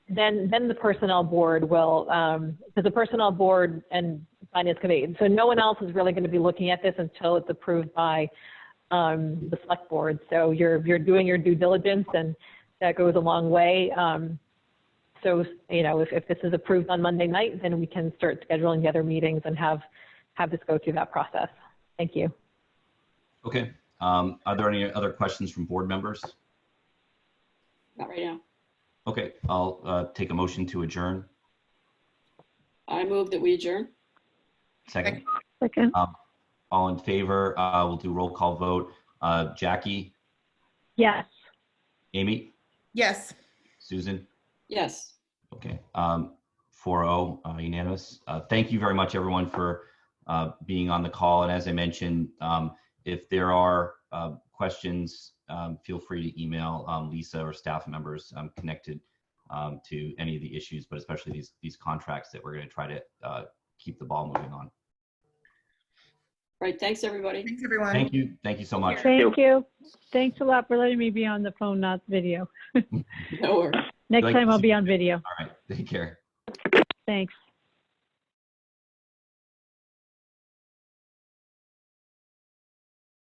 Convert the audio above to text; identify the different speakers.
Speaker 1: then, then the personnel board will, um, because the personnel board and finance committee, so no one else is really going to be looking at this until it's approved by, um, the select board. So you're, you're doing your due diligence and that goes a long way. Um, so, you know, if, if this is approved on Monday night, then we can start scheduling the other meetings and have, have this go through that process. Thank you.
Speaker 2: Okay. Um, are there any other questions from board members?
Speaker 3: Not right now.
Speaker 2: Okay, I'll uh, take a motion to adjourn.
Speaker 3: I move that we adjourn.
Speaker 2: Second, Um,
Speaker 4: Second,
Speaker 2: all in favor, uh, we'll do roll call vote. Uh, Jackie,
Speaker 1: Yes.
Speaker 2: Amy,
Speaker 5: Yes.
Speaker 2: Susan?
Speaker 3: Yes.
Speaker 2: Okay, um, 4-0 uh, unanimous. Uh, Thank you very much, everyone, for uh, being on the call. And as I mentioned, um, if there are uh, questions, um, feel free to email um, Lisa or staff members um, connected um, to any of the issues, but especially these, these contracts that we're going to try to uh, keep the ball moving on.
Speaker 3: Right. Thanks, everybody.
Speaker 5: Thanks, everyone.
Speaker 2: Thank you, thank you so much.
Speaker 4: thank you. Thanks a lot for letting me be on the phone, not video.
Speaker 3: No worries.
Speaker 4: Next
Speaker 2: Thank
Speaker 4: time I'll
Speaker 2: you.
Speaker 4: be on video.
Speaker 2: All right, take care.
Speaker 4: Thanks.